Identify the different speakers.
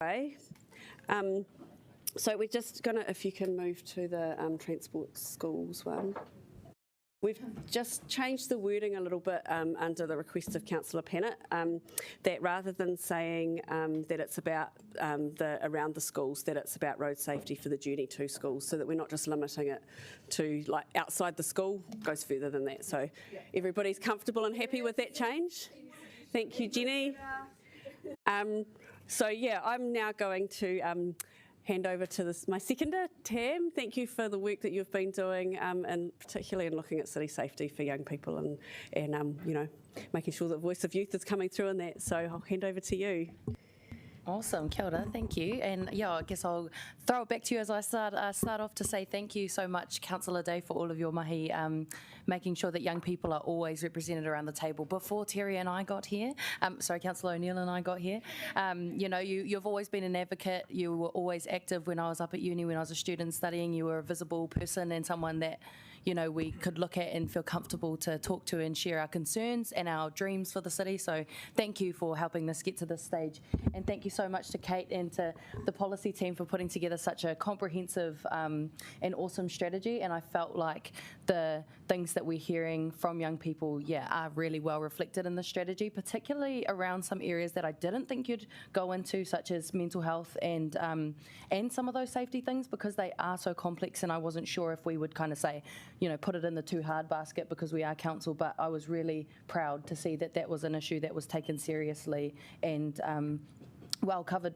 Speaker 1: Hi. Um, so we're just going to, if you can move to the um, transport schools one. We've just changed the wording a little bit um, under the request of Councillor Pennant um, that rather than saying um, that it's about um, the around the schools, that it's about road safety for the journey to schools, so that we're not just limiting it to like outside the school, goes further than that. So everybody's comfortable and happy with that change. Thank you, Jenny. Um, so yeah, I'm now going to um, hand over to this, my seconder, Tam. Thank you for the work that you've been doing, um, and particularly in looking at city safety for young people, and and um, you know, making sure that voice of youth is coming through in that. So I'll hand over to you.
Speaker 2: Awesome, kia ora, thank you. And yeah, I guess I'll throw it back to you as I start uh, start off to say thank you so much, Councillor Day, for all of your mahi, um, making sure that young people are always represented around the table. Before Terry and I got here, um, sorry, Councillor O'Neill and I got here, um, you know, you, you've always been an advocate. You were always active when I was up at uni, when I was a student studying. You were a visible person and someone that, you know, we could look at and feel comfortable to talk to and share our concerns and our dreams for the city. So thank you for helping this get to this stage. And thank you so much to Kate and to the policy team for putting together such a comprehensive um, and awesome strategy. And I felt like the things that we're hearing from young people, yeah, are really well reflected in the strategy, particularly around some areas that I didn't think you'd go into, such as mental health and um, and some of those safety things, because they are so complex. And I wasn't sure if we would kind of say, you know, put it in the too hard basket because we are council. But I was really proud to see that that was an issue that was taken seriously and um, well covered.